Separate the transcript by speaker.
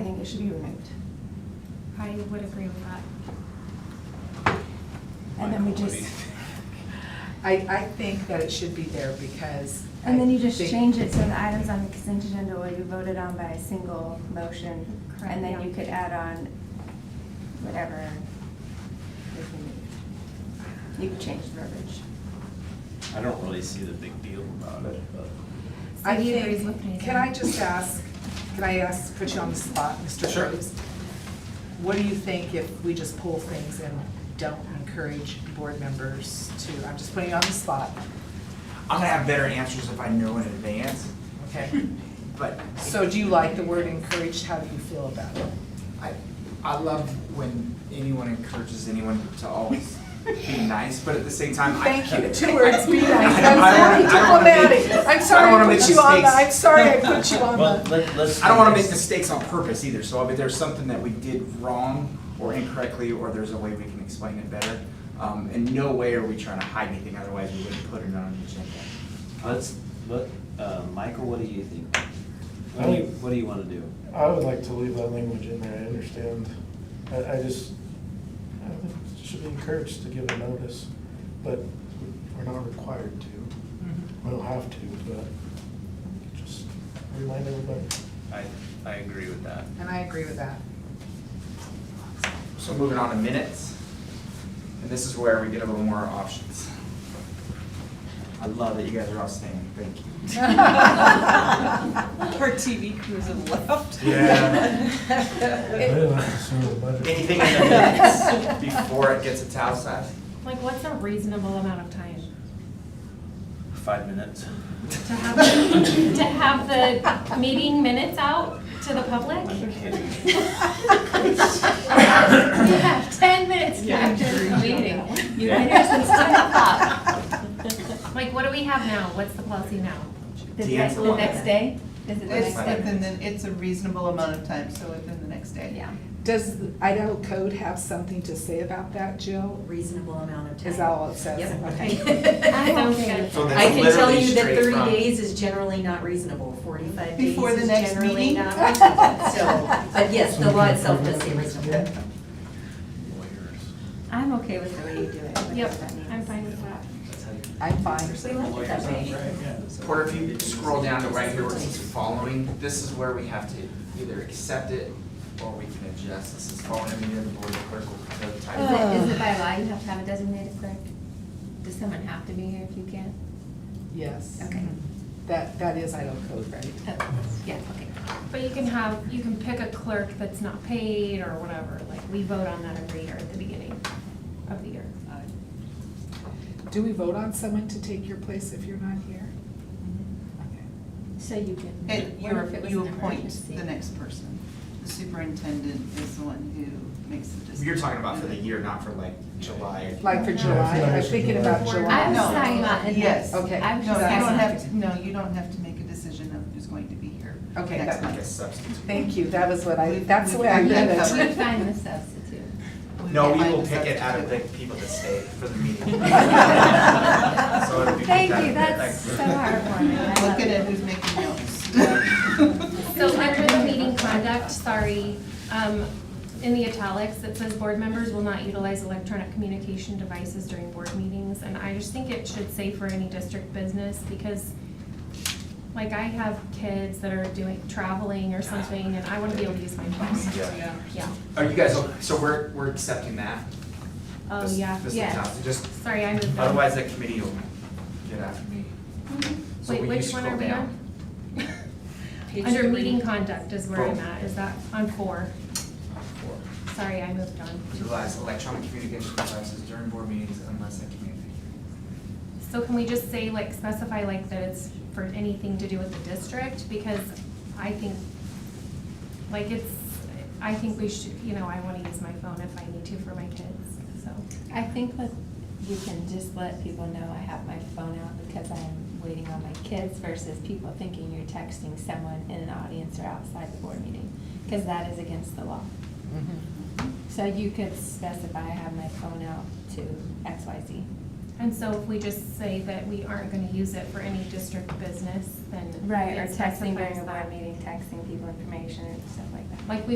Speaker 1: it should be removed.
Speaker 2: I would agree with that.
Speaker 1: And then we
Speaker 3: Michael, what
Speaker 1: just,
Speaker 3: do you think?
Speaker 4: I, I think that it should be there because.
Speaker 2: And then you just
Speaker 4: I think-
Speaker 2: change it so the items on the consent agenda will be voted on by a single motion.
Speaker 1: Correct,
Speaker 2: And then
Speaker 1: yeah.
Speaker 2: you could add on whatever is removed. You could change the verbiage.
Speaker 3: I don't really see the big deal about it, but.
Speaker 4: I
Speaker 2: He
Speaker 4: think-
Speaker 2: agrees with me.
Speaker 4: Can I just ask, can I ask, put you on the spot, Mr.
Speaker 3: Sure.
Speaker 4: Groves? What do you think if we just pull things and don't encourage board members to, I'm just putting you on the spot,
Speaker 5: I'm gonna have better answers if I know in advance,
Speaker 4: okay?
Speaker 5: but
Speaker 4: So do you like the word encouraged? How do you feel about it?
Speaker 5: I, I love when anyone encourages anyone to always be nice, but at the same time, I
Speaker 4: Thank
Speaker 5: can't.
Speaker 4: you, two words, be nice,
Speaker 5: I don't- I
Speaker 4: I'm
Speaker 5: don't- I don't wanna
Speaker 4: very
Speaker 5: make-
Speaker 4: diplomatic, I'm
Speaker 5: I
Speaker 4: sorry
Speaker 5: don't wanna
Speaker 4: I put
Speaker 5: make
Speaker 4: you on the,
Speaker 5: mistakes.
Speaker 4: I'm sorry I put you on
Speaker 3: Well,
Speaker 4: the.
Speaker 3: let, let's.
Speaker 5: I don't wanna make mistakes on purpose either, so if there's something that we did wrong or incorrectly, or there's a way we can explain it better, um, in no way are we trying to hide anything, otherwise we wouldn't put it on the agenda.
Speaker 3: Let's, let, uh, Michael, what do you think? What do you, what do you wanna do?
Speaker 6: I would like to leave that language in there, I understand. I, I just, I think it should be encouraged to give a notice, but we're not required to.
Speaker 1: Mm-hmm.
Speaker 6: We don't have to, but just remind everybody.
Speaker 3: I, I agree with that.
Speaker 4: And I agree with that.
Speaker 5: So moving on to minutes. And this is where we get a little more options. I love that you guys are all staying, thank you.
Speaker 1: Our TV crews have left.
Speaker 6: I
Speaker 4: Yeah.
Speaker 6: didn't have to send the budget.
Speaker 5: Anything in the minutes before it gets italicized?
Speaker 7: Like, what's a reasonable amount of time
Speaker 3: Five minutes.
Speaker 7: to have, to have the meeting minutes out to the public?
Speaker 3: I'm kidding.
Speaker 7: You have ten minutes to
Speaker 1: Yeah, I'm
Speaker 7: finish the meeting.
Speaker 1: You
Speaker 3: Yeah.
Speaker 1: been here since ten o'clock.
Speaker 7: Like, what do we have now? What's the policy now?
Speaker 2: The
Speaker 5: The
Speaker 2: next,
Speaker 5: answer
Speaker 2: the
Speaker 5: was-
Speaker 2: next day? Is it the
Speaker 1: It's
Speaker 2: next day?
Speaker 1: within, the- it's a reasonable amount of time, so within the next day.
Speaker 2: Yeah.
Speaker 4: Does Idaho code have something to say about that, Jill?
Speaker 8: reasonable amount of time.
Speaker 4: Is that all it says?
Speaker 8: Yep.
Speaker 4: Okay.
Speaker 7: I don't think-
Speaker 5: So that's
Speaker 8: I can tell
Speaker 5: literally
Speaker 8: you that
Speaker 5: straight
Speaker 8: thirty
Speaker 5: from-
Speaker 8: days is generally not reasonable, forty-five days
Speaker 1: Before the
Speaker 8: is
Speaker 1: next
Speaker 8: generally
Speaker 1: meeting?
Speaker 8: not reasonable.
Speaker 2: Uh,
Speaker 8: So, but Uh, yes, the law itself does say reasonable.
Speaker 3: Lawyers.
Speaker 2: I'm okay with the way you do it. whatever
Speaker 7: Yep,
Speaker 2: that means.
Speaker 7: I'm fine with that.
Speaker 3: That's how you.
Speaker 4: I'm fine.
Speaker 8: We like it that way.
Speaker 5: Porter, if you scroll down to right here where it says following, this is where we have to either accept it or we can adjust. This is following a meeting of the board the clerk will type.
Speaker 2: Is it,
Speaker 8: Oh.
Speaker 2: is it by law you have to have a designated clerk? Does someone have to be here if you can't?
Speaker 4: Yes.
Speaker 2: Okay.
Speaker 4: That, that is Idaho code, right?
Speaker 2: Oh, yeah, okay.
Speaker 7: But you can have, you can pick a clerk that's not paid or whatever, like, we vote on that every year at the beginning of the year.
Speaker 4: Do we vote on someone to take your place if you're not here?
Speaker 2: So you can.
Speaker 1: It,
Speaker 2: what
Speaker 1: you're,
Speaker 2: if it was
Speaker 1: you
Speaker 2: an
Speaker 1: appoint
Speaker 2: emergency?
Speaker 1: the next person. The superintendent is the one who makes the decision.
Speaker 5: You're talking about for the year, not for like July.
Speaker 4: Like for
Speaker 6: Yeah,
Speaker 4: July,
Speaker 6: yeah,
Speaker 4: I'm
Speaker 6: for
Speaker 4: thinking
Speaker 6: July.
Speaker 4: about July.
Speaker 2: I was
Speaker 1: No.
Speaker 2: talking about. in-
Speaker 1: Yes.
Speaker 4: Okay.
Speaker 2: I
Speaker 1: No,
Speaker 2: was
Speaker 1: you
Speaker 2: just
Speaker 1: don't have
Speaker 2: asking.
Speaker 1: to, no, you don't have to make a decision of who's going to be here.
Speaker 4: Okay,
Speaker 1: next
Speaker 4: that-
Speaker 5: Like
Speaker 1: month.
Speaker 5: a substitute.
Speaker 4: Thank you, that was what I, that's the way I read
Speaker 1: Yeah,
Speaker 2: We
Speaker 4: it.
Speaker 2: find the substitute.
Speaker 5: No,
Speaker 1: can't
Speaker 5: we
Speaker 1: find
Speaker 5: will
Speaker 1: the
Speaker 5: pick it out of the
Speaker 1: substitute.
Speaker 5: people that stayed for the meeting. So it'll be picked
Speaker 2: Thank
Speaker 5: out
Speaker 2: you,
Speaker 5: of
Speaker 2: that's so
Speaker 5: that group.
Speaker 2: heartwarming. I love
Speaker 1: Look at it,
Speaker 2: it.
Speaker 1: who's making notes.
Speaker 7: So under the meeting conduct, sorry, um, in the italics, it says board members will not utilize electronic communication devices during board meetings. And I just think it should say for any district business because like I have kids that are doing, traveling or something and I want to be able to use my phone.
Speaker 5: Yeah.
Speaker 7: Yeah.
Speaker 5: Are you guys, so we're, we're accepting that?
Speaker 7: Oh,
Speaker 5: This-
Speaker 7: yeah,
Speaker 5: this is
Speaker 7: yeah.
Speaker 5: tough. Just,
Speaker 7: Sorry, I moved on.
Speaker 5: otherwise that committee will get after me. So
Speaker 7: Mm-hmm. Wait,
Speaker 5: will you
Speaker 7: which one are
Speaker 5: scroll
Speaker 7: we
Speaker 5: down?
Speaker 7: on? Under meeting conduct is where I'm at. Is that on four?
Speaker 5: Four.
Speaker 7: Sorry, I moved on.
Speaker 5: Utilize electronic communication devices during board meetings unless I communicate.
Speaker 7: So can we just say, like, specify like that it's for anything to do with the district? Because I think, like, it's, I think we should, you know, I wanna use my phone if I need to for my kids, so.
Speaker 2: I think that you can just let people know I have my phone out because I'm waiting on my kids versus people thinking you're texting someone in an audience or outside the board meeting, because that is against the law.
Speaker 4: Mm-hmm.
Speaker 2: So you could specify I have my phone out to X, Y, Z.
Speaker 7: And so if we just say that we aren't gonna use it for any district business, then.
Speaker 2: Right, or
Speaker 7: it
Speaker 2: texting
Speaker 7: specifies
Speaker 2: during a board
Speaker 7: that.
Speaker 2: meeting, texting people information and stuff like that.
Speaker 7: Like, we